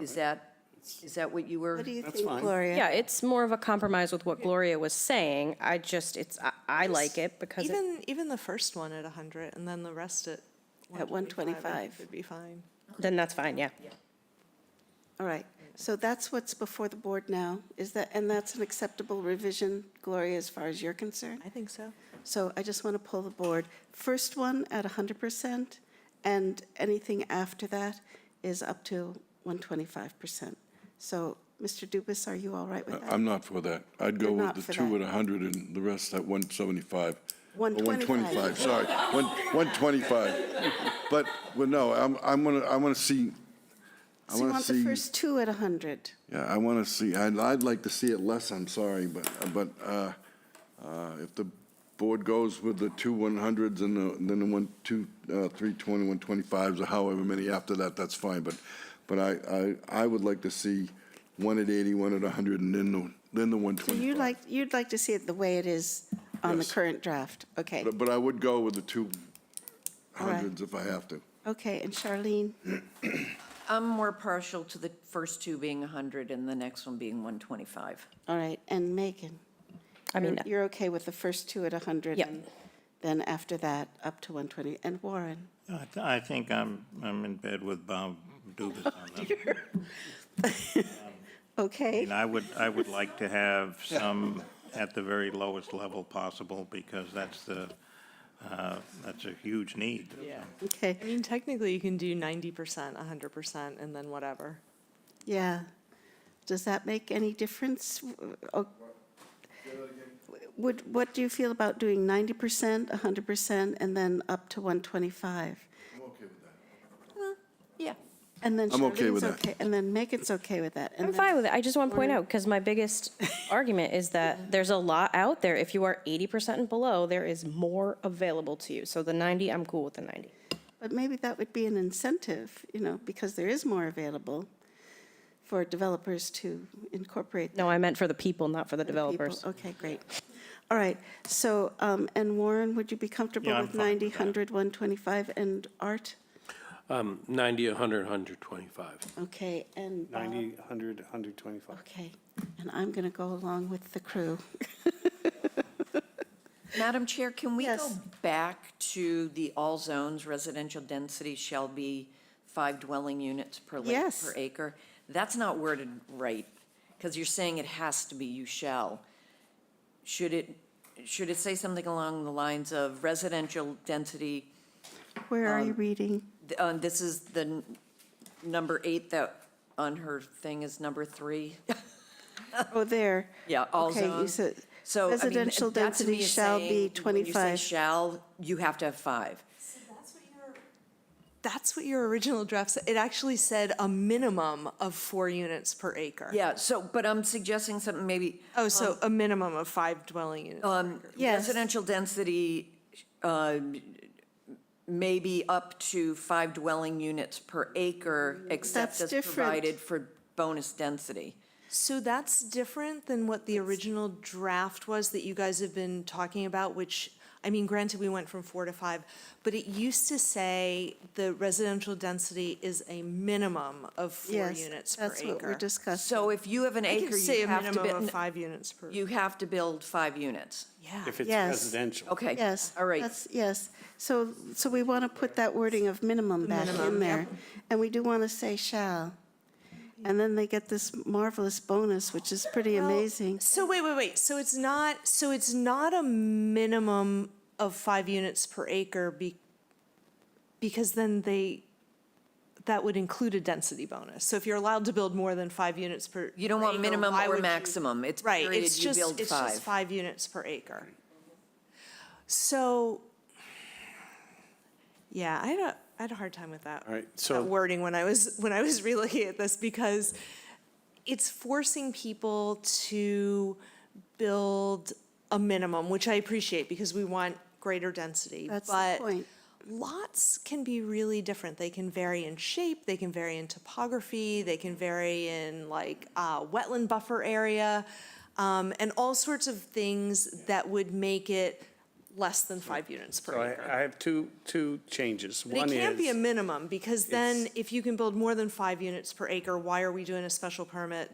Is that, is that what you were? What do you That's think, fine. Gloria? Yeah, it's more of a compromise with what Gloria was saying. I just, it's, I, I like it because it- Even, even the first one at 100 and then the rest at At 125. Would be fine. then that's fine, yeah. All right, so that's what's before the board now, is that, and that's an acceptable revision, Gloria, as far as you're concerned? I think so. So I just want to pull the board. First one at 100%, and anything after that is up to 125%. So, Mr. Dubus, are you all right with that? I'm not for that. I'd go You're with not for the two that. at 100 and the rest at 175. Or 125. 125, sorry, One- 125. But, well, no, I'm, I'm gonna, I want to see, I So you want want the to see, first two at 100? yeah, I want to see, I'd, I'd like to see it less, I'm sorry, but, but uh, uh, if the board goes with the two 100s and the- then the one, two, uh, 320, 125s, or however many after that, that's fine, but, but I, I, I would like to see one at 80, one at 100, and then the, then the So you 125. like, you'd like to see it the way it is on the Yes. current draft? Okay, But but I would go with the two All right. hundreds if I have to. okay, and Charlene? I'm more partial to the first two being 100 and the next one being 125. All right, and Megan? I mean, You're- You're okay with the first two at 100? Yep. and Then after that, up to 120. And Warren? I th- I think I'm, I'm in bed with Bob Dubus on this. Okay, And I would, I would like to have some at the very lowest level possible because that's the, uh, that's a huge need. okay, I mean, technically, you can do 90%, 100%, and then whatever. yeah. Does that make any difference? O- Would, what do you feel about doing 90%, 100%, and then up to 125? Uh, Yeah. And then I'm okay Charlene's with that. okay, and then Megan's okay with that? and I'm then- fine with it. I just want to point out, because my biggest argument is that there's a lot out there. If you are 80% and below, there is more available to you. So the 90, I'm cool with the 90. But maybe that would be an incentive, you know, because there is more available for developers to incorporate No, I meant for the people, not for the the people. developers. Okay, great. All right, so, um, and Warren, would you be comfortable Yeah, I'm with fine with 90, that. 100, 125, and Art? 90, 100, 125. Okay, and Bob? 90, 100, 125. Okay, and I'm going to go along with the crew. Madam Chair, can we go Yes. back to the all zones residential density shall be five dwelling units per la- Yes. per acre? That's not worded right, because you're saying it has to be, you shall. Should it, should it say something along the lines of residential density Where are you reading? Th- uh, This is the n- number eight that on her thing is number three. Oh, there. Yeah, all Okay, you zones. said So, I mean, residential that to me density is shall be saying, When you say 25. shall, you have to have five. That's what your original draft said. It actually said a minimum of four units per acre. Yeah, so, but I'm suggesting something maybe, Oh, so a minimum of five dwelling units. um, Yes. residential density, uh, maybe up to five dwelling units per acre, except Mm-hmm. That's as different. provided for bonus density. So that's different than what the original draft was that you guys have been talking about, which, I mean, granted, we went from four to five, but it used to say the residential density is a minimum of four Yes, units per acre. that's what we're discussing. So if you have an I acre, can say you a have to, minimum of bu- five units per. you have to build five units. Yeah. If it's Yes. residential. Okay. Yes. All right. that's- Yes. So, so we want to put that wording of minimum back in there. And we do want to say shall. And then they get this marvelous bonus, which is pretty Well, amazing. So wait, wait, wait. So it's not, so it's not a minimum of five units per acre be, because then they, that would include a density bonus. So if you're allowed to build more than five units per. You don't per want acre, minimum why or would you- maximum. It's Right, period, it's you just, build it's just five. five units per acre. So, yeah, I had a, I had a hard time with that. All right, that so- Wording when I was, when I was relooking at this because it's forcing people to build a minimum, which I appreciate because we want greater density. That's the but point. Lots can be really different. They can vary in shape, they can vary in topography, they can vary in like uh, wetland buffer area, um, and all sorts of things that would make it less than five units per So acre. I, I have two, two changes. But One it can't be a is, minimum, because then it's- if you can build more than five units per acre, why are we doing a special permit